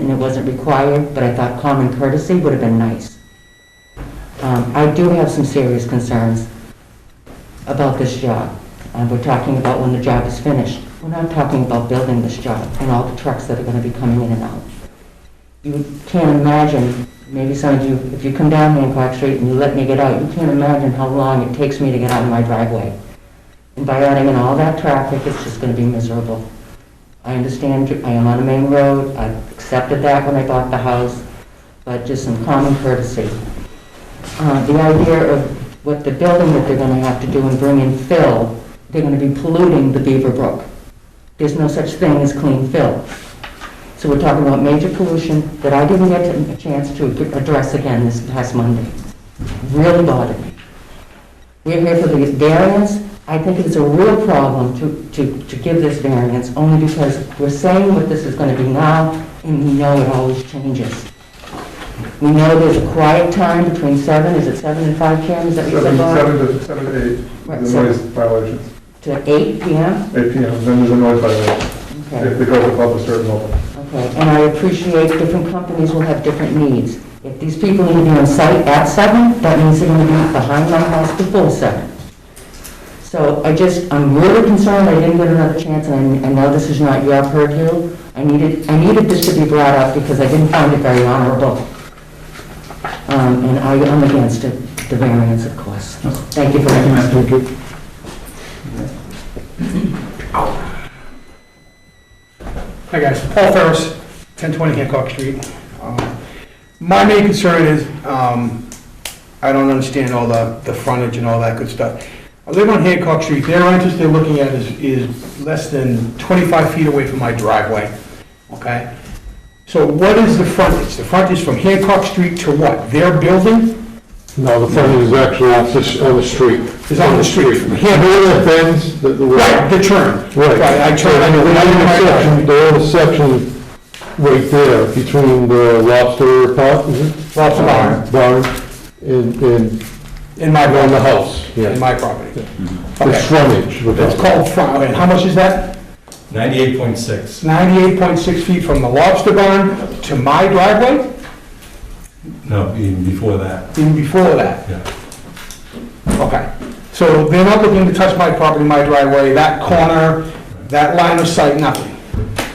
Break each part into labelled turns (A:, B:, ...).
A: and it wasn't required, but I thought common courtesy would have been nice. Um, I do have some serious concerns about this job. Uh, We're talking about when the job is finished. We're not talking about building this job and all the trucks that are going to be coming in and out. You can't imagine, maybe some of you, if you come down Hancock Street and you let me get out, you can't imagine how long it takes me to get out of my driveway. And by adding in all that traffic, it's just going to be miserable. I understand I am on a main road, I accepted that when I bought the house, but just some common courtesy. Uh, The idea of what the building that they're going to have to do and bring in fill, they're going to be polluting the Beaver Brook. There's no such thing as clean fill. So we're talking about major pollution that I didn't get a chance to address again this past Monday. Really bothered me. We're here for the variance. I think it's a real problem to, to, to give this variance, only because we're saying what this is going to be now, and we know it always changes. We know there's a quiet time between seven, is it seven and five, Kim, is that what you said,
B: Seven,
A: Bob?
B: seven to, seven to eight,
A: Right,
B: the
A: so-
B: noise violations,
A: To eight PM?
B: eight P M, then there's a noise violation,
A: Okay.
B: if they go above a certain level.
A: Okay, and I appreciate different companies will have different needs. If these people need to be on site at seven, that means they're gonna be behind my house before seven. So I just, I'm really concerned, I didn't get another chance, and I I know this is not your purview. I needed, I needed this to be brought up because I didn't find it very honorable. Um, and I am against it, the variance, of course. Thank you for that.
B: Thank you.
C: Hi, guys. Paul Ferris, 1020 Hancock Street. Um, My main concern is, um, I don't understand all the, the frontage and all that good stuff. I live on Hancock Street, their entrance they're looking at is, is less than 25 feet away from my driveway, okay? So what is the frontage? The frontage from Hancock Street to what? Their building?
D: No, the fence is actually off the, s- on the street.
C: It's on the street.
D: You can't hear the fence, the, the.
C: Right, the turn. I turn, I
D: And
C: know,
D: the
C: when I'm in my driveway.
D: intersection, the intersection right there between the lobster pot, is it?
C: Lobster barn.
D: Barn, and, and
C: In my,
D: on the
C: property.
D: house, yeah.
C: in my property.
D: The
C: Okay.
D: frontage. we're
C: It's
D: talking.
C: called front, and how much is that?
E: 98.6.
C: 98.6 feet from the lobster barn to my driveway,
E: No, even before that,
C: even before that,
E: yeah.
C: okay. So they're not looking to touch my property, my driveway, that corner, that line of sight, nothing.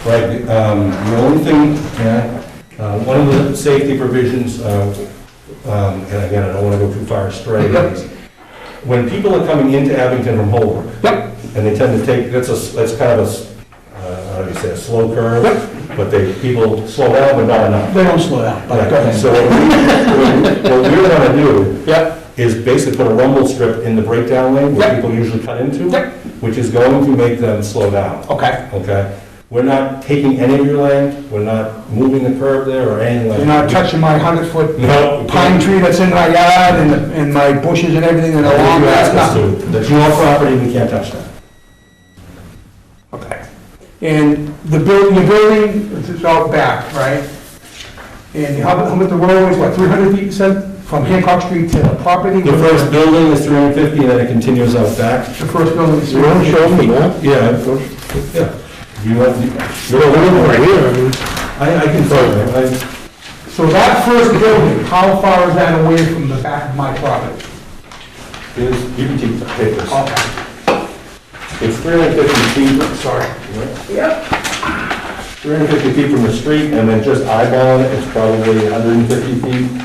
E: Right, um, the only thing, yeah, uh, one of the safety provisions, uh, um, and again, I don't want to go too far astray, is when people are coming into Abington from Holbrook,
C: Yep,
E: and they tend to take, that's a, that's kind of a, s- uh, how do you say, a slow curve, but they, people slow down, but not enough.
C: they don't slow down, but go ahead.
E: So what we- what we want to do
C: Yep,
E: is basically put a rumble strip in the breakdown lane where
C: Yep.
E: people usually cut into,
C: Yep.
E: which is going to make them slow down,
C: okay.
E: okay? We're not taking any of your land, we're not moving the curb there or anything like
C: You're
E: that.
C: not touching my 100-foot
E: No.
C: pine tree that's in my yard and, and my bushes and everything and
E: If
C: along
E: you ask
C: that,
E: us
C: nothing.
E: to, that's your property, we can't touch that.
C: Okay. And the building, the building is out back, right? And how about, how about the roadway, what, 300 feet, you said, from Hancock Street to the property?
E: The first building is 350 and then it continues out back.
C: The first building is
D: You wanna show
C: 300
D: them
C: feet.
D: that?
E: Yeah. Yeah. You have,
D: Well, we're looking right here, I mean,
E: I, I can tell you, I,
C: So that first building, how far is that away from the back of my property?
E: here's, you can keep the papers.
C: Okay,
E: It's 350 feet
C: sorry.
E: Yep. 350 feet from the street, and then just eyeballing it, it's probably 150 feet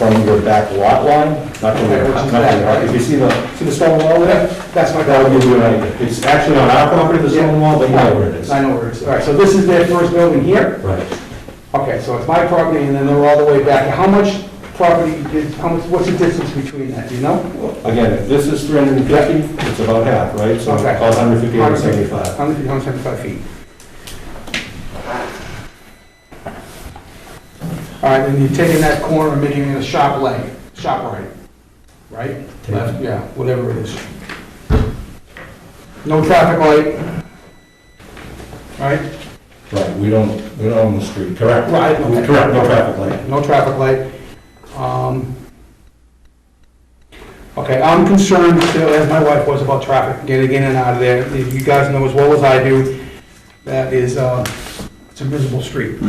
E: from your back lot line, not from your,
C: Okay, which
E: not
C: is
E: from your,
C: back,
E: if you see the, see the stone wall there?
C: That's my
E: That'll give
C: property.
E: you an idea. It's actually on our property, the stone wall, but you know where it is.
C: I know where it is. All right, so this is their first building here?
E: Right.
C: Okay, so it's my property, and then they're all the way back. How much property is, how much, what's the distance between that, do you know?
E: Again, if this is 350, it's about half, right? So
C: Okay.
E: call it 150, 175.
C: 100 feet, 175 feet. All right, then you're taking that corner and making it a shop lane, shop right, right?
E: Take-
C: Left, yeah, whatever it is. No traffic light, right?
E: Right, we don't, we don't own the street, correct?
C: Right, okay.
E: Correct, no traffic light.
C: No traffic light. Um, Okay, I'm concerned, still, as my wife was, about traffic getting in and out of there. You guys know as well as I do, that is, uh, it's a miserable street.